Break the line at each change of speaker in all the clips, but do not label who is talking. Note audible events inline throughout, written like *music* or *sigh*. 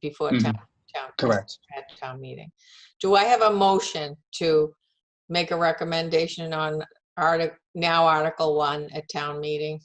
before
Mhm.
town, town.
Correct.
At town meeting. Do I have a motion to make a recommendation on artic, now Article One at town meeting?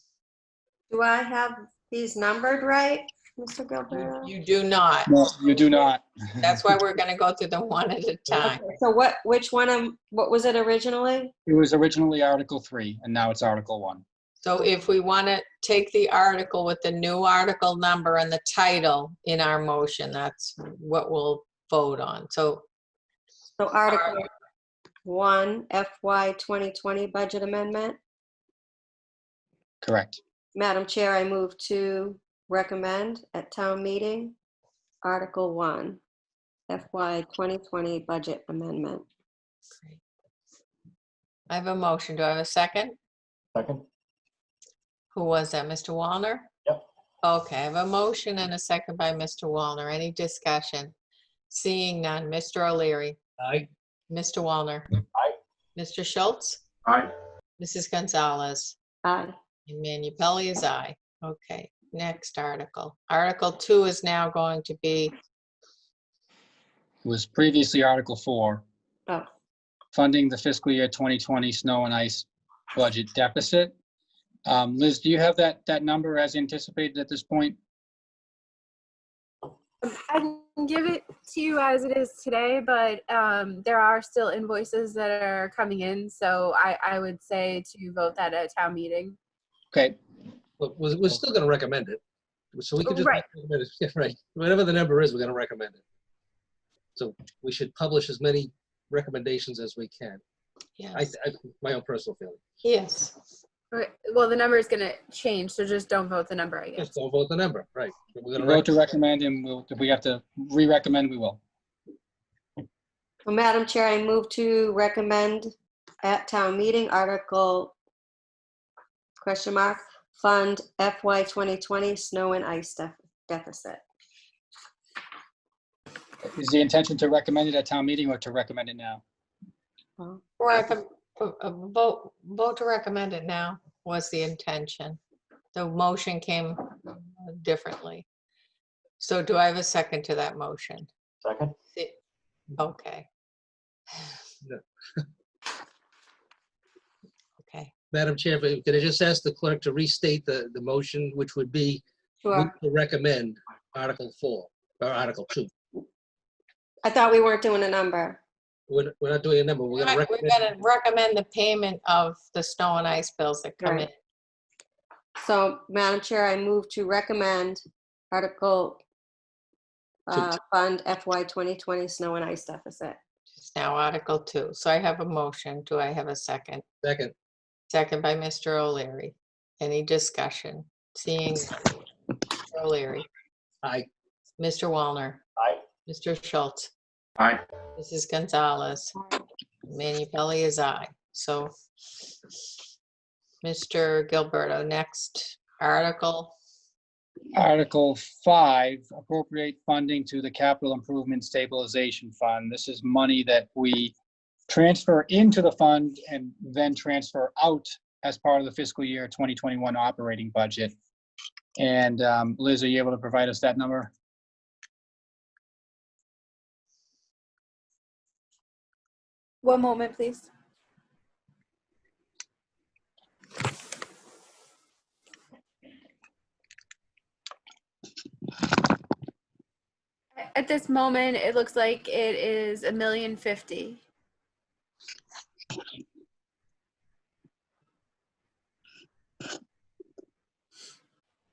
Do I have these numbered right, Mr. Gilberto?
You do not.
No, you do not.
That's why we're gonna go through them one at a time.
Okay, So what, which one, am- what was it originally?
It was originally Article 3, and now it's Article 1.
So if we want to take the article with the new article number and the title in our motion, that's what we'll vote on. So
So Article 1 FY 2020 Budget Amendment.
Correct.
Madam Chair, I move to recommend at town meeting, Article 1 FY 2020 Budget Amendment.
I have a motion. Do I have a second?
Second?
Who was that, Mr. Wallner?
Yep.
Okay, I have a motion and a second by Mr. Wallner. Any discussion? Seeing none. Mr. O'Leary,
Aye.
Mr. Wallner.
Aye.
Mr. Schultz,
Aye.
Mrs. Gonzalez.
Aye.
And Minipelli is aye. Okay, next article. Article two is now going to be,
It was previously Article 4,
Oh,
funding the fiscal year 2020 snow and ice budget deficit. Um, Liz, do you have that, that number as anticipated at this point?
I can give it to you as it is today, but um, there are still invoices that are coming in, so I, I would say to vote that at a town meeting.
Okay,
Look, we're, we're still gonna recommend it. So we could just.
Right.
recommend it. *laughs* Yeah, Right, whatever the number is, we're gonna recommend it. So we should publish as many recommendations as we can. I,
yes,
I, my own personal feeling.
yes.
Okay, Well, the number is gonna change, so just don't vote the number, I guess.
Just don't vote the number, right? But We're
you
gonna
vote
rec-
to recommend, and we'll- if we have to re-recommend, we will.
Well, Madam Chair, I move to recommend at town meeting Article, question mark, Fund FY 2020 Snow and Ice Def- Deficit.
Is the intention to recommend it at town meeting or to recommend it now?
Recom- uh, uh, Vote, vote to recommend it now was the intention. The motion came differently. So do I have a second to that motion?
Second?
See- Okay.
No.
*laughs* Okay,
Madam Chair, but could I just ask the clerk to restate the, the motion, which would be move
Sure.
to recommend Article Four, or Article Two.
I thought we weren't doing a number.
We're, we're not doing a number,
we're
we're gonna
gonna
recommend.
recommend the payment of the snow and ice bills that come in.
Right. So, Madam Chair, I move to recommend Article uh, Fund FY 2020 Snow and Ice Deficit.
It's now Article 2. So I have a motion. Do I have a second?
Second,
Second by Mr. O'Leary. Any discussion? Seeing none. Mr. O'Leary,
aye.
Mr. Wallner,
Aye.
Mr. Schultz,
Aye.
Mrs. Gonzalez, Manu Pelley is aye. So Mr. Gilberto, next article.
Article 5, appropriate funding to the Capital Improvement Stabilization Fund. This is money that we transfer into the fund and then transfer out as part of the fiscal year 2021 operating budget. And um, Liz, are you able to provide us that number?
One moment, please. At this moment, it looks like it is a million fifty.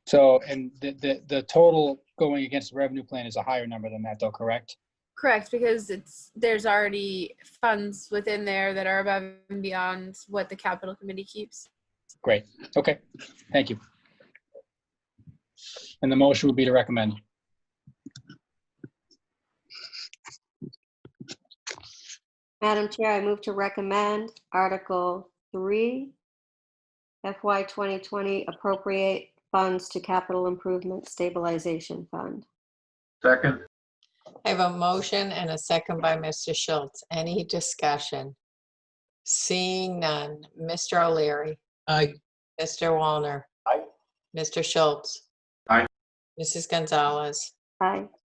So, and the, the, the total going against the revenue plan is a higher number than that though, correct?
Correct, because it's, there's already funds within there that are above and beyond what the capital committee keeps.
Great, okay, thank you. And the motion would be to recommend.
Madam Chair, I move to recommend Article 3 FY 2020 Appropriate Funds to Capital Improvement Stabilization Fund.
Second?
I have a motion and a second by Mr. Schultz. Any discussion? Seeing none. Mr. O'Leary.
Aye,
Mr. Wallner.
Aye.
Mr. Schultz.
Aye.
Mrs. Gonzalez.
Aye.